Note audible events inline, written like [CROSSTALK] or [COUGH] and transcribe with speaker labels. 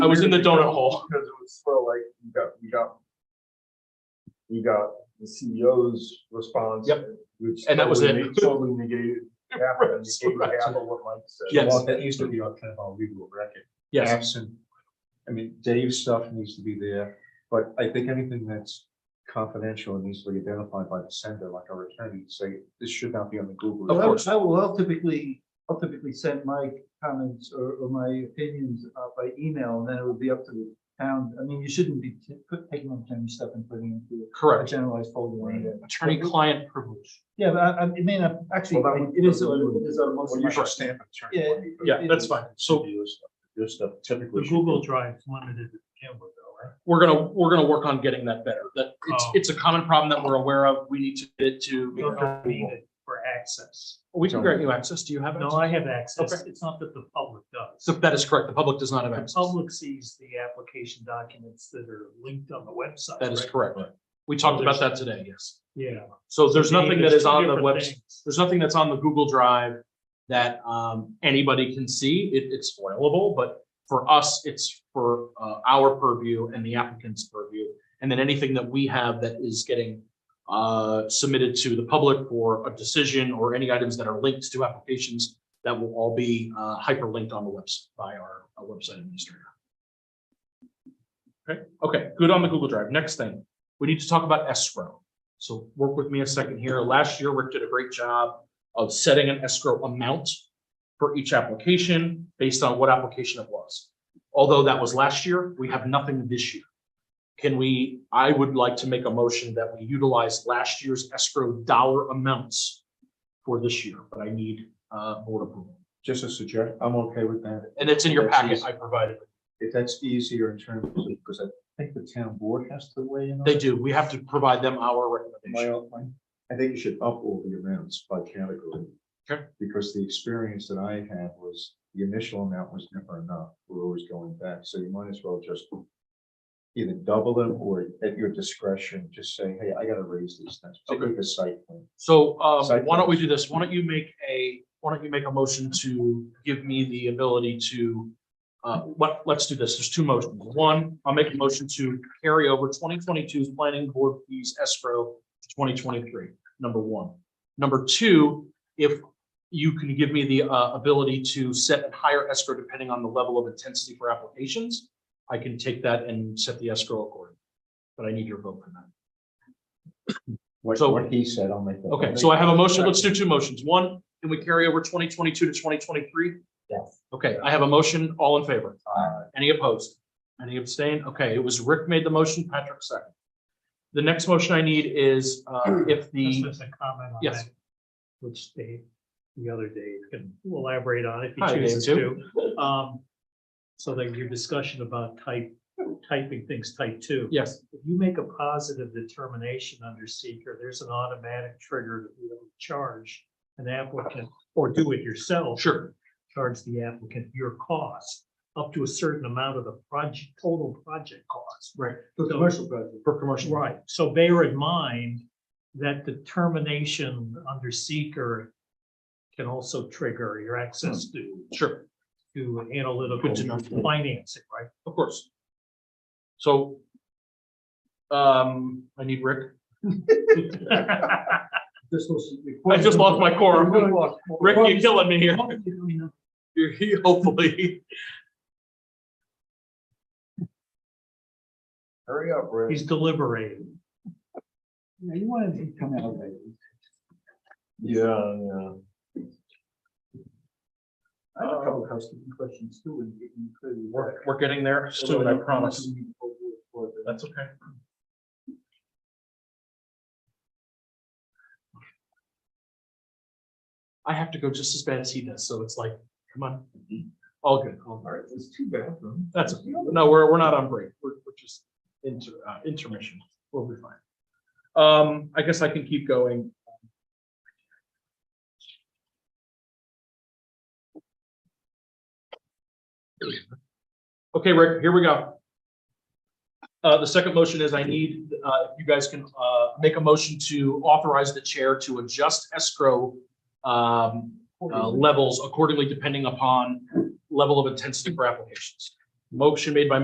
Speaker 1: I was in the donut hole.
Speaker 2: Because it was sort of like, you got, you got. You got the CEO's response.
Speaker 1: Yep.
Speaker 2: Which.
Speaker 1: And that was
Speaker 2: totally
Speaker 1: it.
Speaker 2: ne- Totally
Speaker 1: [LAUGHS]
Speaker 2: negated, half of it, negated
Speaker 1: Right.
Speaker 2: half of what Mike said.
Speaker 1: Yes.
Speaker 3: Well, that used to be our kind of our legal record.
Speaker 1: Yes,
Speaker 3: Absent, I mean, Dave's stuff needs to be there, but I think anything that's confidential needs to be identified by the sender, like our attorney, say, this should not be on the Google.
Speaker 1: Of
Speaker 4: Well, I
Speaker 1: course.
Speaker 4: will- I will, I'll typically, I'll typically send my comments or, or my opinions uh, by email, and then it would be up to the town. I mean, you shouldn't be t- put- taking on time stuff and putting it into a
Speaker 1: correct.
Speaker 4: generalized folder. or anything.
Speaker 1: Attorney-client privilege.
Speaker 4: Yeah, but I, I it may not actually,
Speaker 3: Well, that would-
Speaker 4: it is, it is. on most
Speaker 3: Well,
Speaker 4: of
Speaker 3: you
Speaker 4: my-
Speaker 3: should stamp it. turn it
Speaker 4: Yeah,
Speaker 3: on.
Speaker 1: Yeah, that's fine. So
Speaker 3: Your stuff- Your stuff typically.
Speaker 5: The Google Drive's limited to begin with, though, right?
Speaker 1: we're gonna, we're gonna work on getting that better. That, it's,
Speaker 5: Oh.
Speaker 1: it's a common problem that we're aware of. We need to get it
Speaker 5: We
Speaker 1: to,
Speaker 5: don't need it for access.
Speaker 1: we can grant you access. Do you have?
Speaker 5: No,
Speaker 1: access?
Speaker 5: I have access.
Speaker 1: Okay.
Speaker 5: It's not that the public does.
Speaker 1: So that is correct. The public does not have
Speaker 5: The
Speaker 1: access.
Speaker 5: public sees the application documents that are linked on the website.
Speaker 1: That is
Speaker 5: right?
Speaker 1: correct. We talked about that today, yes.
Speaker 5: Yeah.
Speaker 1: So there's nothing that is on the
Speaker 5: Different
Speaker 1: website.
Speaker 5: things.
Speaker 1: there's nothing that's on the Google Drive that um, anybody can see. It, it's spoilable, but for us, it's for uh, our purview and the applicant's purview. And then anything that we have that is getting uh, submitted to the public for a decision or any items that are linked to applications that will all be uh, hyperlinked on the website by our uh, website administrator. Okay, okay, good on the Google Drive. Next thing, we need to talk about escrow. So work with me a second here. Last year, Rick did a great job of setting an escrow amount for each application based on what application it was. Although that was last year, we have nothing this year. Can we, I would like to make a motion that we utilize last year's escrow dollar amounts for this year, but I need uh board approval.
Speaker 3: Just a suggestion, I'm okay with that.
Speaker 1: And it's in your
Speaker 3: That's
Speaker 1: packet
Speaker 3: easy.
Speaker 1: I provided.
Speaker 3: If that's easier in terms of, because I think the town board has to weigh in. on
Speaker 1: They
Speaker 3: it.
Speaker 1: do. We have to provide them our
Speaker 3: My,
Speaker 1: recommendation.
Speaker 3: my, I think you should up all the amounts by category.
Speaker 1: Sure.
Speaker 3: Because the experience that I had was the initial amount was never enough. We're always going back, so you might as well just either double them or at your discretion, just say, hey, I gotta raise these things, particularly the site plan.
Speaker 1: So um,
Speaker 3: Site
Speaker 1: why don't we do this? Why don't you make a, why don't you make a motion to give me the ability to uh, what, let's do this. There's two motions. One, I'll make a motion to carry over 2022's planning board fees escrow to 2023, number one. Number two, if you can give me the uh, ability to set a higher escrow depending on the level of intensity for applications, I can take that and set the escrow accordingly. But I need your vote for that.
Speaker 3: What,
Speaker 1: So-
Speaker 3: what he said, I'll make that.
Speaker 1: Okay, so I have a motion. Let's do two motions. One, can we carry over twenty twenty-two to twenty twenty-three?
Speaker 3: Yes.
Speaker 1: Okay, I have a motion. All in favor?
Speaker 3: Aye.
Speaker 1: Any opposed? Any abstain? Okay, it was Rick made the motion, Patrick second. The next motion I need is, uh, if the,
Speaker 5: Just as a comment on
Speaker 1: Yes.
Speaker 5: that. Which Dave, the other Dave can elaborate on if he
Speaker 1: Hi, Dave,
Speaker 5: chooses to. Um, so that your discussion about type, typing things type two.
Speaker 1: yes,
Speaker 5: If you make a positive determination under seeker, there's an automatic trigger that we don't charge an applicant or do it yourself.
Speaker 1: sure,
Speaker 5: Charge the applicant your cost up to a certain amount of the project, total project cost.
Speaker 1: right,
Speaker 4: For commercial project.
Speaker 1: for commercial.
Speaker 5: Right, so bear in mind that determination under seeker can also trigger your access to,
Speaker 1: Sure,
Speaker 5: to analytical
Speaker 1: Hmm. Good to know.
Speaker 5: financing, right?
Speaker 1: of course. So um, I need Rick. [LAUGHS]
Speaker 4: This was.
Speaker 1: I just lost my quorum. Rick, you're killing me here.
Speaker 4: Well,
Speaker 1: [LAUGHS] You're- Hopefully,
Speaker 2: Hurry up, Rick.
Speaker 5: He's deliberating.
Speaker 4: You wanted to come out later.
Speaker 2: Yeah, yeah.
Speaker 4: I have a couple of housekeeping questions too, and you can clearly
Speaker 1: we're,
Speaker 4: work.
Speaker 1: we're getting there soon, I promise. That's okay. I have to go just as bad as he does, so it's like, come on, all good, all
Speaker 2: All
Speaker 1: good.
Speaker 2: right, there's two bathrooms.
Speaker 1: That's, no, we're, we're not on break, we're, we're just inter, uh, intermission, we'll be fine. Um, I guess I can keep going. Here we go. Okay, Rick, here we go. Uh, the second motion is I need, uh, if you guys can, uh, make a motion to authorize the chair to adjust escrow, um, uh, levels accordingly depending upon level of intensity for applications. Motion made by